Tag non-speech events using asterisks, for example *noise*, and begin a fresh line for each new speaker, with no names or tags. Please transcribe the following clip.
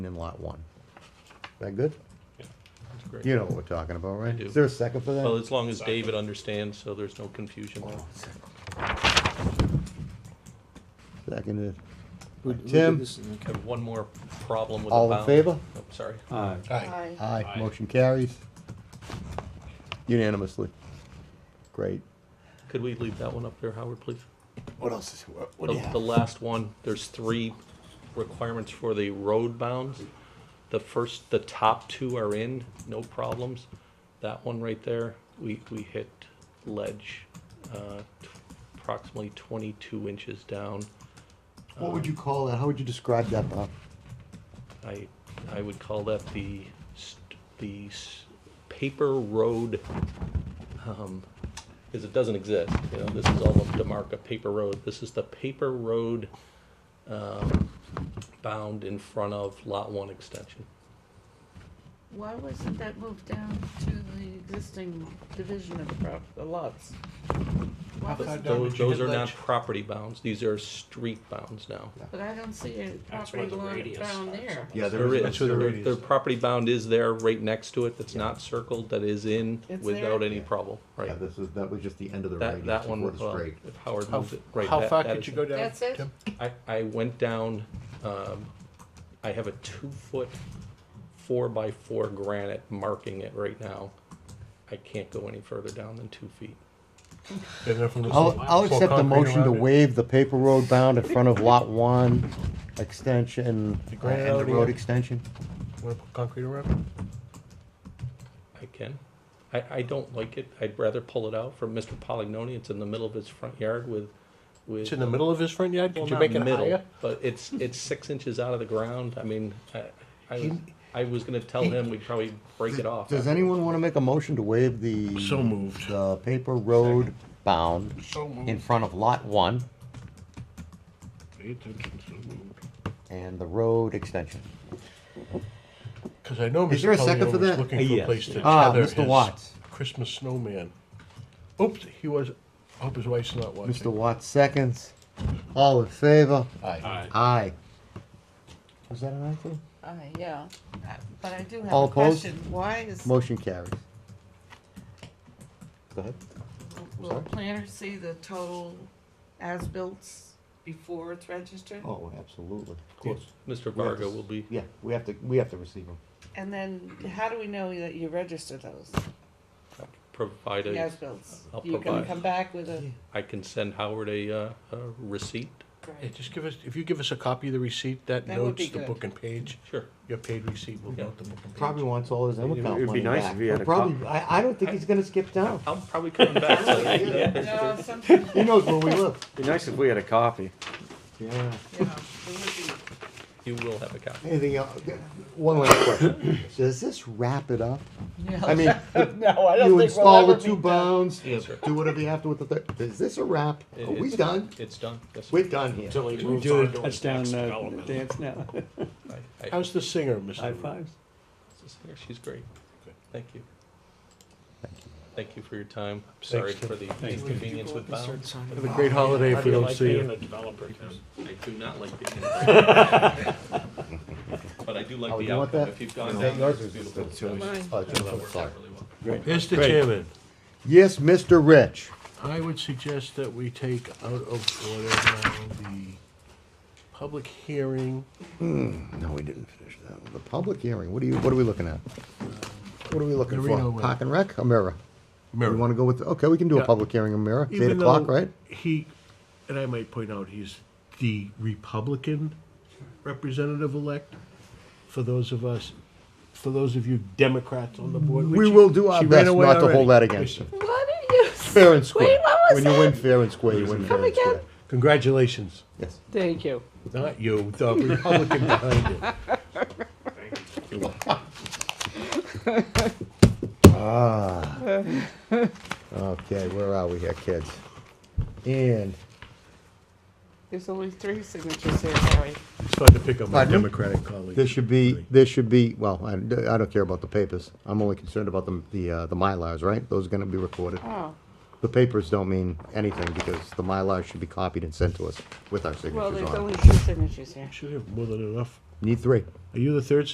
in lot one. Is that good?
Yeah, that's great.
You know what we're talking about, right?
I do.
Is there a second for that?
Well, as long as David understands, so there's no confusion.
Seconded.
Who- who did
Tim?
this in the-
I have one more problem with the
All
bound.
in favor?
Oh, Sorry.
Aye.
Aye, motion carries unanimously. Great.
Could we leave that one up there, Howard, please?
What else is, what what do
The,
you have?
the last one, there's three requirements for the road bounds. The first, the top two are in, no problems. That one right there, we, we hit ledge, uh, t- approximately twenty-two inches down.
What would you call that? How would you describe that, Bob?
I, I would call that the, st- the s- paper road, um, because it doesn't exist, you know, this is all of Demarca paper road, this is the paper road, um, bound in front of lot one extension.
Why wasn't that moved down to the existing division of the prop, the lots? Why was,
Those- Those are not property bounds, these are street bounds now.
but I don't see a
That's where
property
the
line
radius
down
starts.
there.
Yeah,
There is,
where the
their,
radius
their
is.
property bound is there, right next to it, that's not circled, that is in
It's there?
without any problem,
Yeah,
right?
this is, that was just the end of the
That,
radius
that one, uh,
before the
well,
straight.
if Howard
How,
moves it, right,
how
that-
far
that
could
is
you
it.
go down?
That's it?
Tim?
I, I went down, um, I have a two-foot, four-by-four granite marking it right now. I can't go any further down than two feet.
And then from the-
I'll, I'll
so
accept the
concrete
motion to
around it?
waive the paper road bound in front of lot one extension, uh,
granite
and the
already
road
in?
extension.
Wanna put concrete around it?
I can. I, I don't like it. I'd rather pull it out from Mr. Polignoni. It's in the middle of his front yard with, with.
It's in the middle of his front yard,
Well,
could you
not
make it
middle,
higher?
But
*laughs*
it's, it's six inches out of the ground. I mean, I, I, was-
He-
I was gonna tell him we'd probably break it off.
Does
afterwards.
anyone want to make a motion to waive the?
So moved.
The paper road bound in front of lot one
Pay attention, so moved.
and the road extension.
Cause I know
Is there a
Mr.
second for
Pellegrino was
that?
looking for a
Yes.
place to
Ah,
tether
Mr.
his
Watts.
Christmas snowman. Oops, he was, I hope his wife's not
Mr.
watching.
Watts seconds. All in favor?
Aye.
Aye. Was that an aye, too?
Aye, yeah. Uh, But I do have
All
a
opposed?
question. Why is,
Motion carries. Go ahead.
will the
sorry?
planner see the total as-bills before it's registered?
Oh, absolutely. Of
Mr.
We have to
Varga
s-
will be,
Yeah, we have to, we have to receive them.
And then, how do we know that you register those,
provide
the
a,
as-bills?
I'll
You're gonna
provide.
come back with a,
I can send Howard a, uh, a receipt.
Yeah,
great,
just give us, if you give us a copy of the receipt, that
That would
notes
be
the
good.
book and page,
Sure.
your paid receipt will
Yeah.
note the book and page.
Probably wants all his
It'd-
income money back.
it'd be nice if he had
But
a copy.
Probably, I, I don't think he's gonna skip town.
I'm probably coming *laughs* back. so that-
no, something,
He knows where we live.
Be nice if we had a copy.
*laughs* Yeah.
yeah, it would be.
You will have a copy.
Anything else? One last question. Does this wrap it up? I mean,
No, I
you install the two bounds,
Yes, sir.
do whatever you have to with the third. Is this a wrap?
It-
Are we
it's-
done?
It's done. Yes, sir.
We're done here.
Until he
We
moves
do
on
a
to his
touchdown
next
uh,
development.
dance now.
I- I-
How's the singer, Mr.
High
Rubin?
fives.
She's great.
Good.
Thank you. Thank you for your time. Sorry for the inconvenience with bounds.
Have a great holiday if we don't see you.
a developer, Tim?
I do not
*laughs*
like the. *laughs* But I do like
Oh,
the
you want
outcome.
that?
If you've gone
Is
down,
that
there,
yours
it's
or is
beautiful.
it
That
Mine.
Uh,
worked out really well.
Mr. Chairman.
Yes, Mr. Rich.
I would suggest that we take out of order now the public hearing.
No, we didn't finish that one. The public hearing, what are you, what are we looking at? What are we looking
Marina
for?
Way.
Park and rec or mirror? We wanna go with, okay, we can do a
Yeah.
public hearing in mirror. It's eight
Even
o'clock,
though
right?
He, and I might point out, he's the Republican representative-elect. For those of us, for those of you Democrats on the board. which
We
she-
will do our
she ran
best
away
not to hold that
already.
against you.
What are you?
Fair and square.
what was
When you win fair and square, you win fair and square.
again?
Congratulations,
Yes.
Thank you.
not you, the Republican behind it.
Ah. *laughs* Okay, where are we here, kids? And,
There's only three signatures here, Harry.
It's fun to pick up my
Pardon me?
Democratic colleagues.
there should be, there should be, well, I, I don't care about the papers. I'm only concerned about the, the, uh, the Mylars, right? Those are gonna be recorded.
Oh,
The papers don't mean anything because the Mylar should be copied and sent to us with our signatures
well,
on
there's
it.
only two signatures here.
Should have more than enough.
Need three.
Are you the third